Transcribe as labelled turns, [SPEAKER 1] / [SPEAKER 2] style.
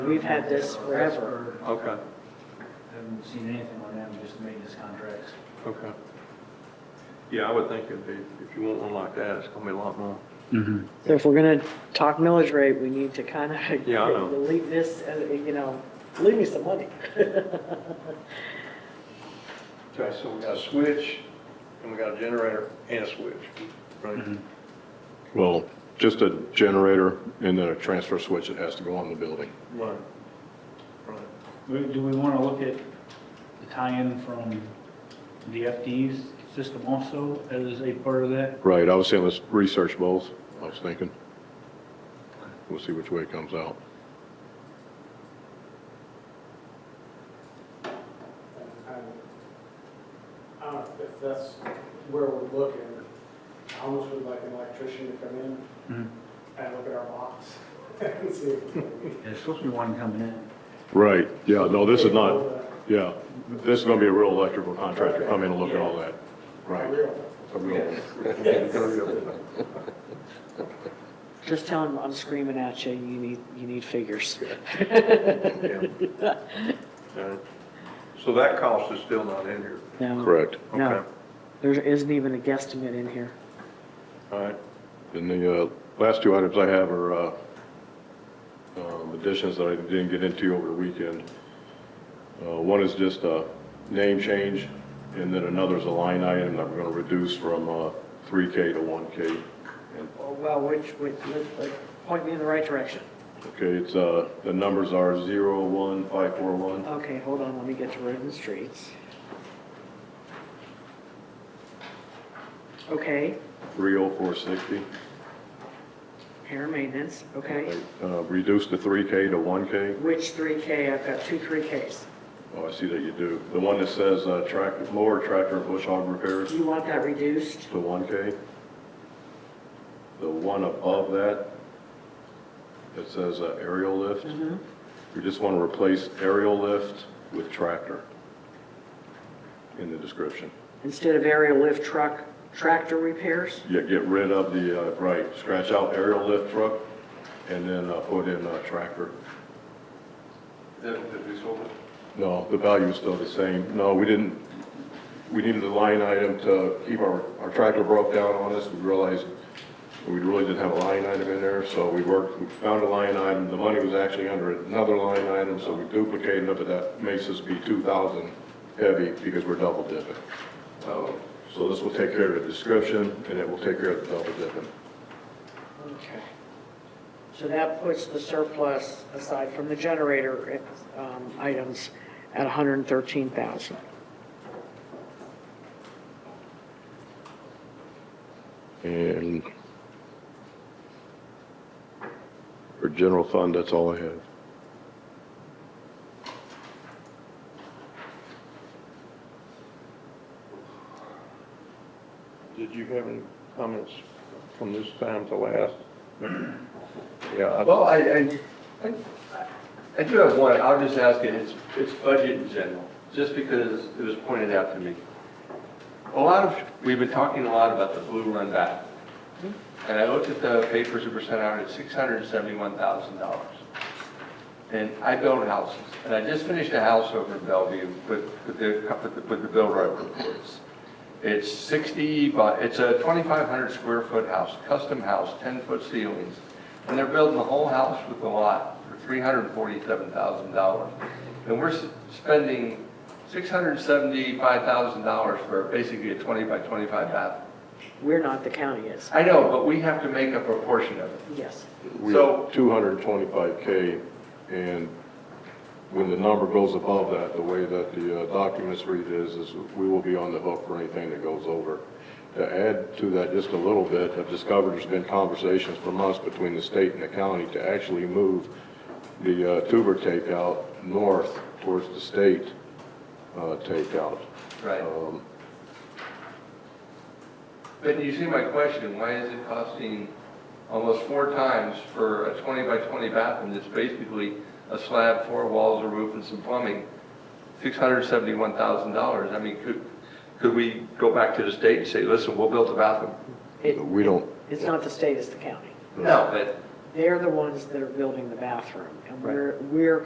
[SPEAKER 1] we've had this forever.
[SPEAKER 2] Okay,
[SPEAKER 3] Haven't seen anything on them, just maintenance contracts.
[SPEAKER 2] okay. Yeah, I would think it'd be, if you want one like that, it's gonna be a lot more.
[SPEAKER 1] So if we're gonna talk millage rate, we need to kind of.
[SPEAKER 2] Yeah, I know.
[SPEAKER 1] Leave this, uh, you know, leave me some money.
[SPEAKER 2] Okay, so we got a switch, and we got a generator and a switch, right?
[SPEAKER 4] Well, just a generator and then a transfer switch that has to go on the building.
[SPEAKER 2] Right, right.
[SPEAKER 3] We- Do we want to look at the tie-in from the FD's system also as a part of that?
[SPEAKER 4] Right, I was saying let's research both, I was thinking. We'll see which way it comes out.
[SPEAKER 5] I don't know if that's where we're looking. I almost would like an electrician to come in and look at our box and see if.
[SPEAKER 3] There's supposed to be one coming in.
[SPEAKER 4] Right, yeah, no, this is not, yeah, this is gonna be a real electrical contractor, come in and look at all that. Right. a real-
[SPEAKER 1] Just tell him I'm screaming at you, you need, you need figures.
[SPEAKER 2] Okay. So that cost is still not in here?
[SPEAKER 1] No.
[SPEAKER 4] Correct.
[SPEAKER 1] No,
[SPEAKER 2] Okay.
[SPEAKER 1] there isn't even a guesstimate in here.
[SPEAKER 2] All right,
[SPEAKER 4] And the uh, last two items I have are uh, um, additions that I didn't get into over the weekend. Uh, One is just a name change, and then another is a line item that we're going to reduce from uh, 3K to 1K.
[SPEAKER 1] Oh, Well, which, which, point me in the right direction.
[SPEAKER 4] Okay, it's, uh, the numbers are 01541.
[SPEAKER 1] Okay, hold on, let me get to road and streets. Okay,
[SPEAKER 4] 30460.
[SPEAKER 1] air maintenance, okay.
[SPEAKER 4] Uh, Reduce the 3K to 1K.
[SPEAKER 1] Which three K? I've got two three Ks.
[SPEAKER 4] Oh, I see that you do. The one that says uh, tractor, mower, tractor, and bush hog repairs.
[SPEAKER 1] Do you want that reduced?
[SPEAKER 4] The one K? The one above that, that says uh, aerial lift? We just want to replace aerial lift with tractor in the description.
[SPEAKER 1] Instead of aerial lift truck, tractor repairs?
[SPEAKER 4] Yeah, get rid of the, uh, right, scratch out aerial lift truck and then uh, put in uh, tractor. No, the value is still the same. No, we didn't, we needed a line item to keep our, our tractor broke down on us. We realized we really didn't have a line item in there, so we worked, we found a line item. The money was actually under another line item, so we duplicated it, but that makes us be 2,000 heavy because we're double dipping. Uh, So this will take care of the description and it will take care of the double dipping.
[SPEAKER 1] Okay. So that puts the surplus aside from the generator, um, items at hundred and thirteen thousand.
[SPEAKER 4] And for general fund, that's all I have.
[SPEAKER 2] did you have any comments from this time to last? Yeah, I-
[SPEAKER 6] Well, I, I, I- I do have one, I'll just ask it, it's, it's budget in general, just because it was pointed out to me. A lot of, we've been talking a lot about the blue run back. And I looked at the papers that were sent out, it's six hundred and seventy-one thousand dollars. And I build houses, and I just finished a house over in Bellevue with, with the, with the- with the bill right reports. It's 60 by, it's a 2,500 square foot house, custom house, 10 foot ceilings. And they're building the whole house with the lot for $347,000. And we're s- spending $675,000 for basically a 20 by 25 bathroom.
[SPEAKER 1] We're not, the county is.
[SPEAKER 6] I know, but we have to make up a portion of it.
[SPEAKER 1] Yes.
[SPEAKER 4] We
[SPEAKER 6] So-
[SPEAKER 4] have 225K, and when the number goes above that, the way that the uh, documents read is, is we will be on the hook for anything that goes over. To add to that just a little bit, I've discovered there's been conversations from us between the state and the county to actually move the uh, tuber takeout north towards the state uh, takeout.
[SPEAKER 6] Right.
[SPEAKER 4] Um,
[SPEAKER 6] But you see my question, why is it costing almost four times for a 20 by 20 bathroom that's basically a slab, four walls, a roof, and some plumbing? $671,000. I mean, could, could we go back to the state and say, listen, we'll build a bathroom?
[SPEAKER 1] It,
[SPEAKER 4] We don't,
[SPEAKER 1] it's not the state, it's the county.
[SPEAKER 6] No, but
[SPEAKER 1] They're the ones that are building the bathroom, and we're, we're